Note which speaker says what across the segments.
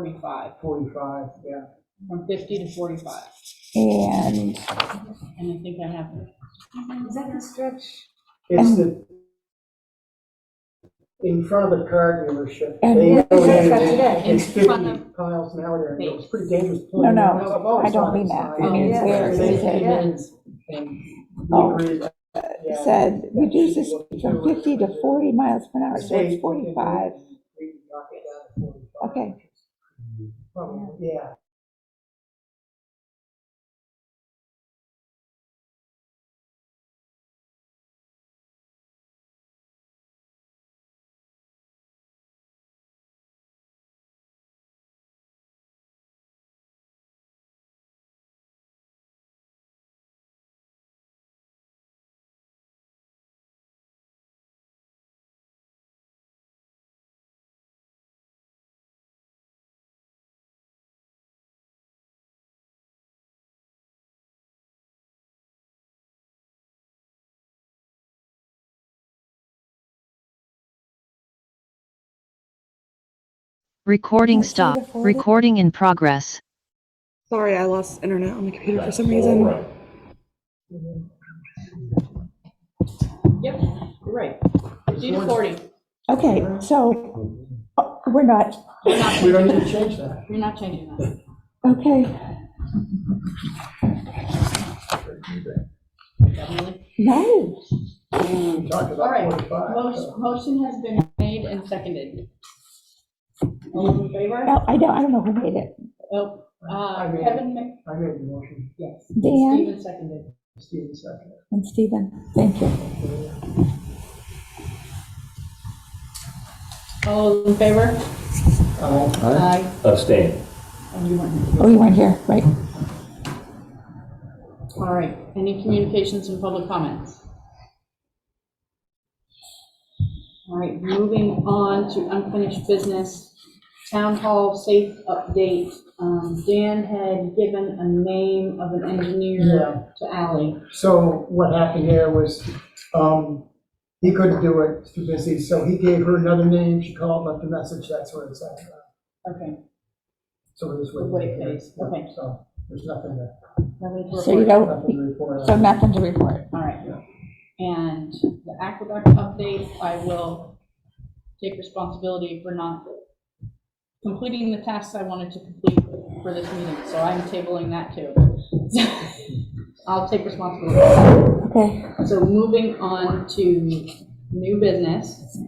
Speaker 1: 45,
Speaker 2: 45, yeah.
Speaker 1: from 50 to 45.
Speaker 3: And
Speaker 1: And I think that happened.
Speaker 4: Is that the stretch?
Speaker 2: It's the, in front of the car dealership.
Speaker 3: And
Speaker 2: they
Speaker 3: it-
Speaker 2: donated
Speaker 4: that's today.
Speaker 2: It's
Speaker 1: In front
Speaker 2: 50 miles an hour there, and it was
Speaker 1: Thanks.
Speaker 2: pretty dangerous.
Speaker 3: No, no,
Speaker 2: I've always
Speaker 3: I don't
Speaker 2: thought
Speaker 3: mean
Speaker 2: it's
Speaker 3: that. I
Speaker 2: fine.
Speaker 4: mean,
Speaker 2: Yeah.
Speaker 4: where
Speaker 2: They-
Speaker 4: is it?
Speaker 2: they-
Speaker 3: Oh.
Speaker 2: they agreed, yeah.
Speaker 3: said, reduce this from 50 to 40 miles per hour, so it's 45.
Speaker 2: We can knock it down to 45.
Speaker 3: Okay.
Speaker 2: Probably, yeah.
Speaker 5: Recording
Speaker 3: Okay, so
Speaker 5: stop.
Speaker 3: the folder-
Speaker 5: Recording in progress.
Speaker 6: Sorry, I lost internet on the computer for some
Speaker 7: All
Speaker 6: reason.
Speaker 7: right.
Speaker 1: Yep, you're right. 50 to 40.
Speaker 3: Okay, so uh, we're not,
Speaker 1: You're not-
Speaker 2: We don't need to change that.
Speaker 1: You're not changing that.
Speaker 3: okay,
Speaker 1: Definitely.
Speaker 3: no.
Speaker 2: We talked
Speaker 1: All right.
Speaker 2: about 45. so-
Speaker 1: Motion motion has been made and seconded. All those in favor?
Speaker 3: No, I don't, I don't know who made it.
Speaker 1: Oh, uh,
Speaker 2: I made it.
Speaker 1: Kevin, Mc-
Speaker 2: I made the motion,
Speaker 1: yes.
Speaker 3: Dan?
Speaker 1: Steven seconded.
Speaker 2: Stephen seconded.
Speaker 3: And Stephen, thank you.
Speaker 1: All those in favor?
Speaker 2: Uh,
Speaker 1: Aye.
Speaker 7: Abstain.
Speaker 1: And you weren't here.
Speaker 3: Oh, you weren't here, right?
Speaker 1: All right, any communications and public comments? All right, moving on to unfinished business, town hall safe update. Um, Dan had given a name of an engineer to Ally.
Speaker 2: So what happened there was, um, he couldn't do it, too busy, so he gave her another name, she called, left a message, that's where it's at.
Speaker 1: Okay,
Speaker 2: So it was with.
Speaker 1: Wait, please. Okay. Oh.
Speaker 2: So there's nothing to,
Speaker 1: nobody to
Speaker 3: So you
Speaker 1: report.
Speaker 3: don't,
Speaker 2: nothing to report
Speaker 3: so
Speaker 2: on.
Speaker 3: nothing to report.
Speaker 1: All right. And the aqueduct update, I will take responsibility for not completing the tasks I wanted to complete for this meeting, so I'm tabling that too. I'll take responsibility.
Speaker 3: Okay,
Speaker 1: So moving on to new business,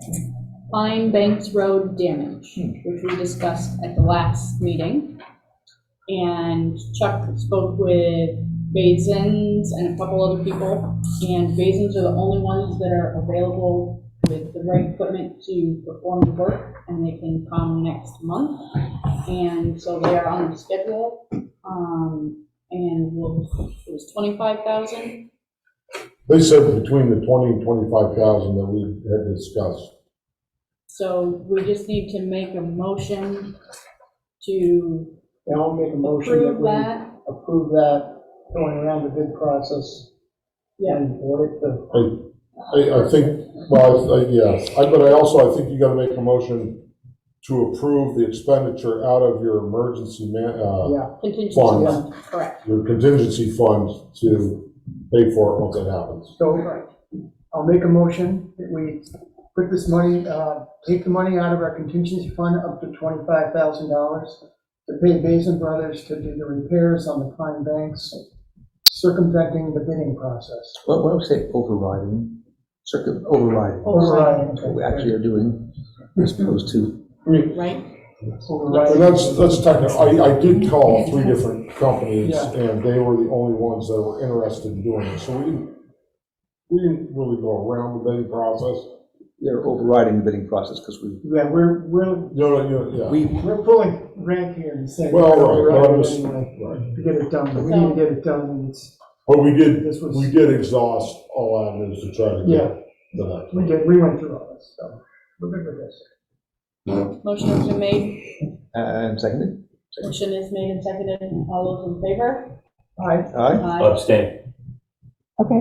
Speaker 1: Pine Banks Road damage, which we discussed at the last meeting. And Chuck spoke with Basins and a couple other people, and Basins are the only ones that are available with the right equipment to perform the work, and they can come next month. And so they are on the schedule, um, and we'll, it was twenty-five thousand.
Speaker 7: They said between the 20 and 25,000 that we had discussed.
Speaker 1: So we just need to make a motion to
Speaker 2: Yeah, I'll make a motion that
Speaker 1: approve
Speaker 2: we
Speaker 1: that.
Speaker 2: approve that, going around the bid process. And audit the,
Speaker 7: I, I, I think, well, I- I- yes, I- but I also, I think you got to make a motion to approve the expenditure out of your emergency, ma- uh,
Speaker 2: yeah,
Speaker 1: Contingency
Speaker 7: Fund.
Speaker 1: fund, correct,
Speaker 7: your contingency fund to pay for it once it happens.
Speaker 2: so
Speaker 1: correct.
Speaker 2: I'll make a motion that we put this money, uh, take the money out of our contingency fund up to twenty-five thousand dollars to pay Basin Brothers to do the repairs on the Pine Banks, circumventing the bidding process.
Speaker 8: Well, when I say overriding, circuit overriding,
Speaker 2: Overriding.
Speaker 8: what we actually are doing as opposed to,
Speaker 1: Right?
Speaker 7: And
Speaker 2: Overriding.
Speaker 7: that's, that's technical, I, I did call three different companies,
Speaker 2: Yeah.
Speaker 7: and they were the only ones that were interested in doing it, so we didn't, we didn't really go around the bidding process.
Speaker 8: they're overriding the bidding process because we,
Speaker 2: Yeah, we're, we're,
Speaker 7: You know, you know, yeah.
Speaker 8: we,
Speaker 2: we're pulling rank here and saying.
Speaker 7: Well,
Speaker 2: we're
Speaker 7: right, well, I'm
Speaker 2: overriding
Speaker 7: just-
Speaker 2: anyway
Speaker 7: right.
Speaker 2: To get it done, but we need to get it done, and it's,
Speaker 7: But we did,
Speaker 2: this was.
Speaker 7: we did exhaust all avenues to try to
Speaker 2: Yeah.
Speaker 7: get the,
Speaker 2: We did, we went through all this, so we're good with this.
Speaker 1: Motion has been made,
Speaker 8: and seconded,
Speaker 1: motion is made and seconded, all those in favor?
Speaker 2: Aye,
Speaker 8: aye?
Speaker 1: Aye.
Speaker 9: Abstain,
Speaker 3: okay.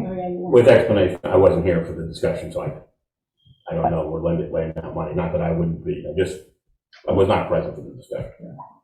Speaker 1: Oh, yeah, you want-
Speaker 9: with explanation, I wasn't here for the discussion, so I, I don't know, we're laying, laying out money, not that I wouldn't be, I just I was not present for the discussion.